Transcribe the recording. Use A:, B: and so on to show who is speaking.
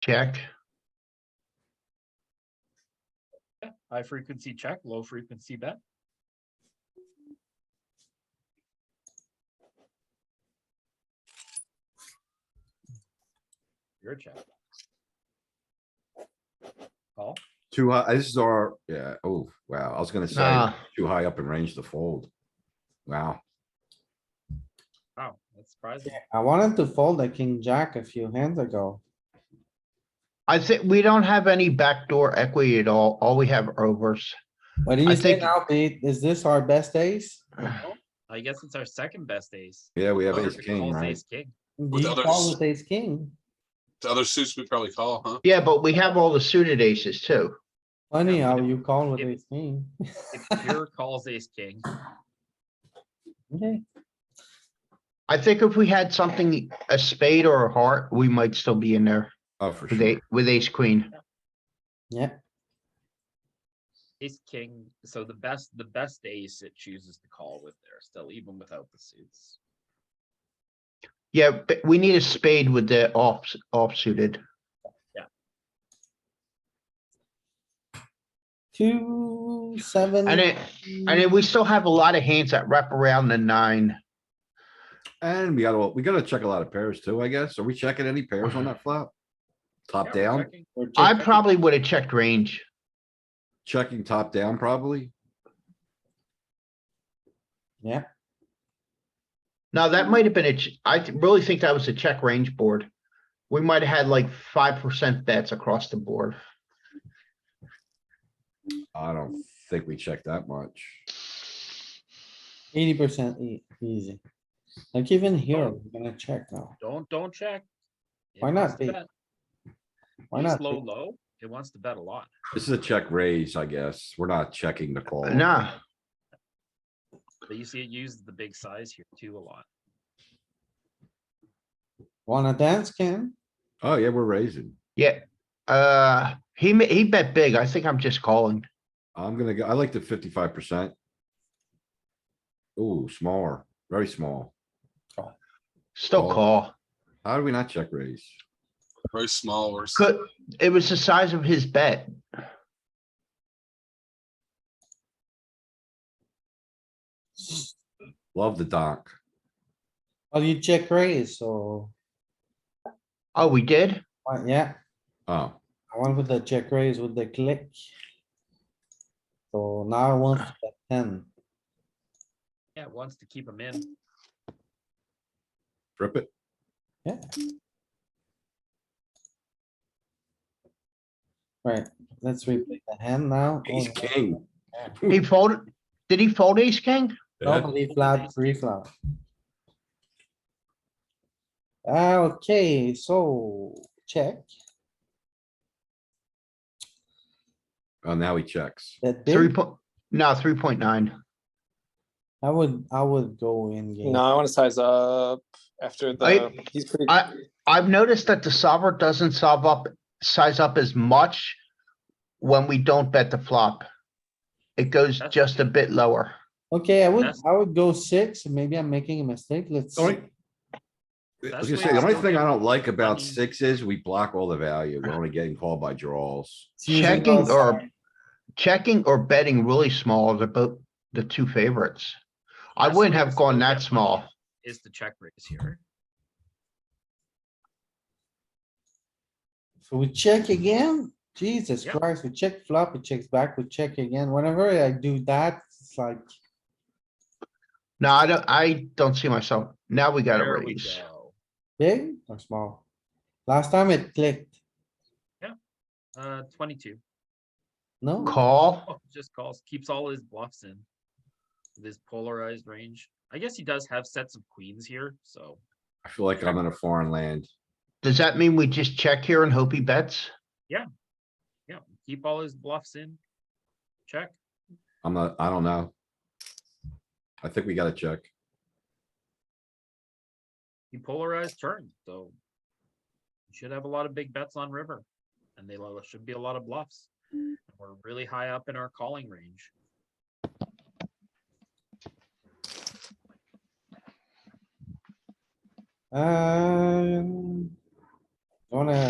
A: check.
B: High frequency check, low frequency bet. Your check. Call,
C: Too high, this is our, yeah, oh, wow, I was gonna say,
A: Nah,
C: too high up in range to fold. Wow,
B: wow, that's surprising.
D: I wanted to fold the king jack a few hands ago.
A: I think we don't have any backdoor equity at all. All we have are overs.
D: What do
A: I
D: you
A: think-
D: think now, Pete? Is this our best ace?
B: I guess it's our second best ace.
C: yeah, we have
E: Oh,
C: ace
E: you're
C: king,
B: Calls
C: right?
B: ace king.
D: Do
E: With
D: you
E: others-
D: call with ace king?
E: The other suits we probably call, huh?
A: Yeah, but we have all the suited aces too.
D: Funny
B: Yeah,
D: how
B: if-
D: you call with
B: if-
D: ace king.
B: If pure calls ace king,
D: Okay,
A: I think if we had something, a spade or a heart, we might still be in there
C: Oh, for
A: with
C: sure.
A: a, with ace queen.
D: yeah,
B: ace king, so the best, the best ace it chooses to call with there still, even without the suits.
A: Yeah, but we need a spade with the off, off suited.
D: two, seven.
A: And it, and then we still have a lot of hands that wrap around the nine.
C: And we gotta, we gotta check a lot of pairs too, I guess. Are we checking any pairs on that flop? Top
B: Yeah, we're
C: down,
B: checking.
D: We're
A: I
D: checking.
A: probably would have checked range.
C: checking top down probably.
D: Yeah,
A: Now, that might have been a, ch- I th- really think that was a check range board. We might have had like five percent bets across the board.
C: I don't think we checked that much.
D: eighty percent e-, easy. Like even here,
E: Oh.
D: we're gonna check now.
B: Don't, don't check. It
D: Why
B: wants
D: not,
B: to
D: Pete?
B: bet.
D: Why
B: Ace
D: not?
B: low, low, it wants to bet a lot.
C: This is a check raise, I guess. We're not checking the call.
A: Nah,
B: But you see it uses the big size here too a lot.
D: Wanna dance, Ken?
C: Oh, yeah, we're raising.
A: yeah, uh, he, ma- he bet big. I think I'm just calling.
C: I'm gonna go, I like the fifty-five percent. Ooh, smaller, very small.
A: Still
C: Call.
A: call.
C: How do we not check raise?
E: Very small or. s-
A: Could, it was the size of his bet.
C: Love the donk.
D: Well, you check raise, so,
A: Oh, we did?
D: uh, yeah,
C: Oh,
D: I went with the check raise with the click. So now I want to bet ten.
B: Yeah, it wants to keep him in.
C: rip it.
D: Yeah. Right, let's replay the hand now. Oh,
C: Ace
D: no.
C: king.
A: He folded, did he fold ace king?
C: Yeah.
D: Normally E flat, three flat. Ah, Okay, so check,
C: Oh, now he checks.
D: that
A: Three
D: big,
A: point, no, three point nine.
D: I would, I would go in game.
F: No, I want to size up after the.
A: I-
F: he's pretty.
A: I- I've noticed that the solver doesn't solve up, size up as much when we don't bet the flop. It goes
B: That's-
A: just a bit lower.
D: Okay, I would,
B: That's-
D: I would go six, maybe I'm making a mistake, let's.
C: The only- I
B: That's
C: was
B: why
C: gonna say, the
B: I
C: only
B: don't
C: thing I
B: get
C: don't like about
B: money.
C: six is we block all the value. We're only getting called by draws.
D: it's using
A: checking
D: those-
A: or- Checking or betting really small are the both, the two favorites. I
B: That's
A: wouldn't
B: where
A: have
B: it's
A: gone
B: still
A: that
B: definitely
A: small.
B: Is the check raise here.
D: So we check again? Jesus
B: Yeah.
D: Christ, we check flop, it checks back, we check again. Whenever I do that, it's like,
A: No, I don't, I don't see myself. Now we gotta
B: There we
A: raise.
B: go.
D: Big or small? Last time it clicked,
B: Uh, twenty-two.
D: no?
A: Call.
B: Oh, Just calls, keeps all his bluffs in. with His polarized range. I guess he does have sets of queens here, so
C: I feel like I'm in a foreign land.
A: Does that mean we just check here and hope he bets?
B: yeah, keep all his bluffs in. Check.
C: I'm not, I don't know. I think we gotta check.
B: He polarized turn, so. you Should have a lot of big bets on river. And they lo- should be a lot of bluffs. and We're really high up in our calling range.
D: Um. Wanna